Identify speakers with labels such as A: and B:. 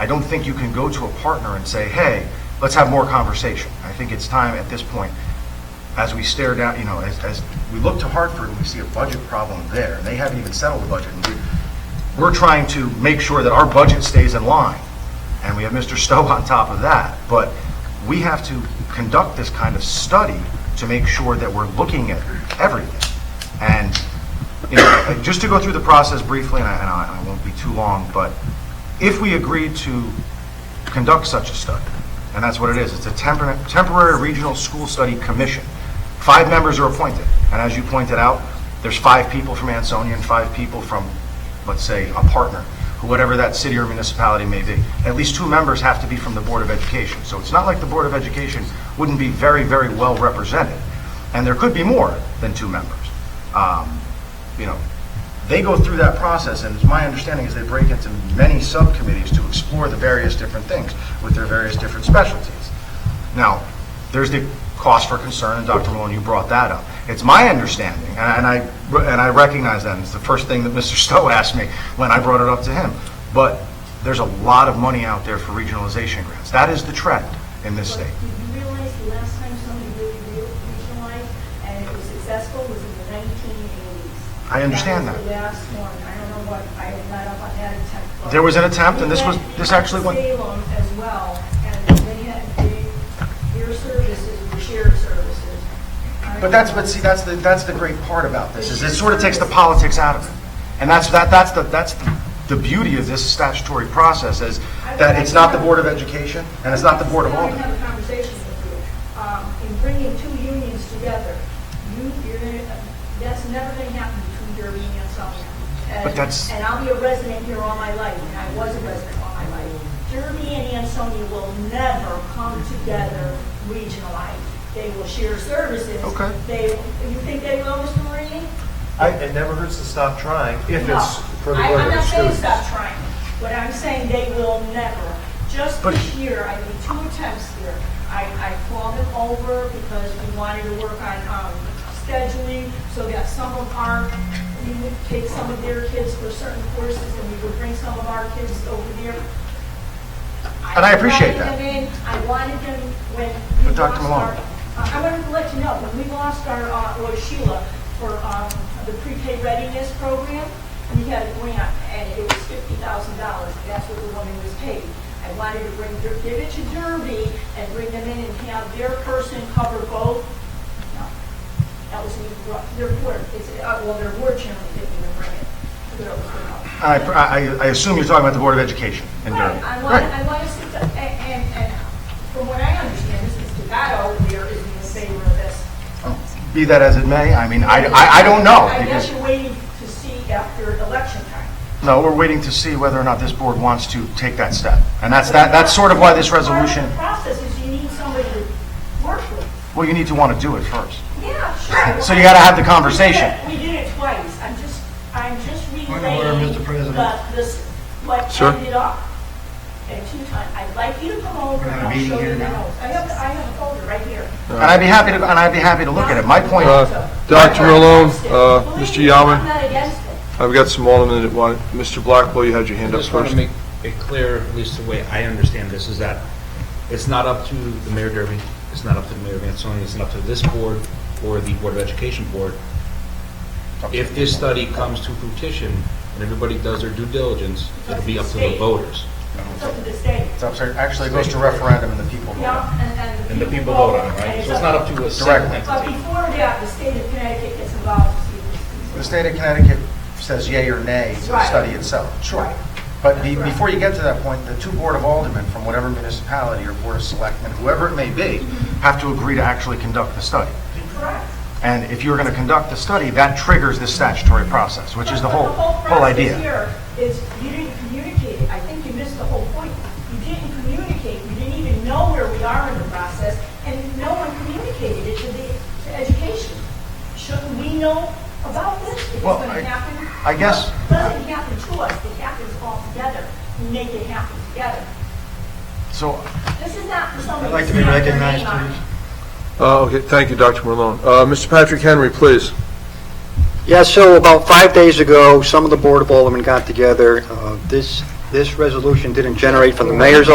A: I don't think you can go to a partner and say, hey, let's have more conversation. I think it's time at this point, as we stare down, you know, as, as we look to Hartford and we see a budget problem there, and they haven't even settled the budget. and we- We're trying to make sure that our budget stays in line, and we have Mr. Stowe on top of that. But we have to conduct this kind of study to make sure that we're looking at everything. And, you know, just to go through the process briefly, and I, and I I won't be too long, but if we agreed to conduct such a study, and that's what it is, it's a temporary, temporary regional school study commission. Five members are appointed, and as you pointed out, there's five people from Ansonia and five people from, let's say, a partner, who- whatever that city or municipality may be. At least two members have to be from the Board of Education, so it's not like the Board of Education wouldn't be very, very well represented. And there could be more than two members. Um, you know, they go through that process, and it's my understanding is they break into many subcommittees to explore the various different things with their various different specialties. Now, there's the cost for concern, and Dr. Malone, you brought that up. It's my understanding, and and I, and I recognize that, and it's the first thing that Mr. Stowe asked me when I brought it up to him, but there's a lot of money out there for regionalization grants. That is the trend in this state.
B: Did you realize the last time somebody really re- regionalized and it was successful was in the nineteen eighties?
A: I understand that.
B: was the last one. I don't know what, I am not up on that attempt. but-
A: There was an attempt, and this was- this actually went-
B: We went to Salem as well, and they had, they, your services were shared services.
A: But that's, but see, that's the, that's the great part about this, is it sort of takes the politics out of it. And that's, that, that's the, that's the beauty of this statutory process, is that it's not the Board of Education, and it's not the Board of
B: Now I
A: Aldermen.
B: have a conversation with you. Um, In bringing two unions together, you, you're gonna, that's never gonna happen between Derby and Ansonia. And-
A: But that's-
B: And I'll be a resident here all my life, and I was a resident all my life. Derby and Ansonia will never come together regionalized. They will share services.
A: Okay.
B: They, you think they will, Mr. Marini?
C: It never hurts to stop trying if
B: No.
C: it's for the
B: I-
C: good of the
B: I'm not saying
C: students.
B: stop trying, but I'm saying they will never. Just
A: But-
B: this year, I made two attempts here. I, I called them over because we wanted to work on um, scheduling so that some of our, we would take some of their kids for certain courses and we would bring some of our kids over there.
A: And I appreciate that.
B: wanted them in. I wanted them when we
A: But Dr.
B: lost
A: Malone.
B: our- uh, I wanted to let you know, when we lost our, uh, or Sheila, for um, the prepaid readiness program, we had a grant, and it was fifty thousand dollars, that's what the woman was paid. I wanted to bring, Dur- give it to Derby and bring them in and have their person cover both. No, That was, the- their board, it's, uh, well, their board chairman didn't even bring it. Who else would know?
A: I, I, I assume you're talking about the Board of Education in Durham.
B: Right, I want, I want to sit, down- and, and, and from what I understand, Mrs. Devato, there is in the same room as
A: Be that as it may, I mean, I, I, I don't know,
B: I guess
A: because,
B: you're waiting to see after election time.
A: no, we're waiting to see whether or not this board wants to take that step. And that's, that, that's sort of why this resolution,
B: Part of the process is you need somebody to work with.
A: well, you need to want to do it first.
B: Yeah, sure.
A: So you gotta have the conversation.
B: We did it- we did it twice. I'm just, I'm just
D: Point of order,
B: relaying
D: Mr. President.
B: the, this, what
A: Sir?
B: ended up. And two times, I'd like you to come over
D: We're having
B: and
D: a
B: I'll
D: meeting
B: show you
D: here
B: the
D: now.
B: notes. I have, I have a folder right here.
A: And I'd be happy to, and I'd be happy to look at it. My point,
E: Uh, Dr. Malone, uh,
B: Believe
E: Mr.
B: me, I'm
E: Yaman,
B: not against it.
E: I've got some aldermen that want, Mr. Blackwell, you had your
F: I
E: hand up
F: just want to
E: first.
F: make it clear, at least the way I understand this, is that it's not up to the Mayor Derby, it's not up to the Mayor of Ansonia, it's not up to this board or the Board of Education Board. If this study comes to fruition and everybody does their due diligence, it'll be up to the voters.
B: It's up to the state.
A: it's up to- actually it goes to referendum and the people. vote.
B: Yeah, and, and.
F: And the people vote on it, right? So it's not up to a single
A: Directly.
B: But
F: entity.
B: before that, the state of Connecticut gets involved.
A: The state of Connecticut says yea or nay to the
B: Right.
A: study itself, sure.
B: Right.
A: But be- before you get to that point, the two board of aldermen from whatever municipality or board of selectmen, whoever it may be, have to agree to actually conduct the study.
B: Correct.
A: And if you're going to conduct the study, that triggers this statutory process, which is the whole, whole idea.
B: process here is you didn't communicate it. I think you missed the whole point. You didn't communicate, you didn't even know where we are in the process, and no one communicated it to the, to education. Shouldn't we know about this? If it's
A: Well,
B: gonna
A: I-
B: happen?
A: I guess-
B: It Doesn't happen to us, it happens all together. We make it happen together.
A: So
B: This is not for somebody.
D: I'd like to
B: to
D: be
B: snap their
D: recognized,
B: name on.
D: please.
E: Uh, okay, thank you, Dr. Malone. Uh, Mr. Patrick Henry, please.
G: Yeah, so about five days ago, some of the Board of Aldermen got together. Uh, This this resolution didn't generate from the mayor's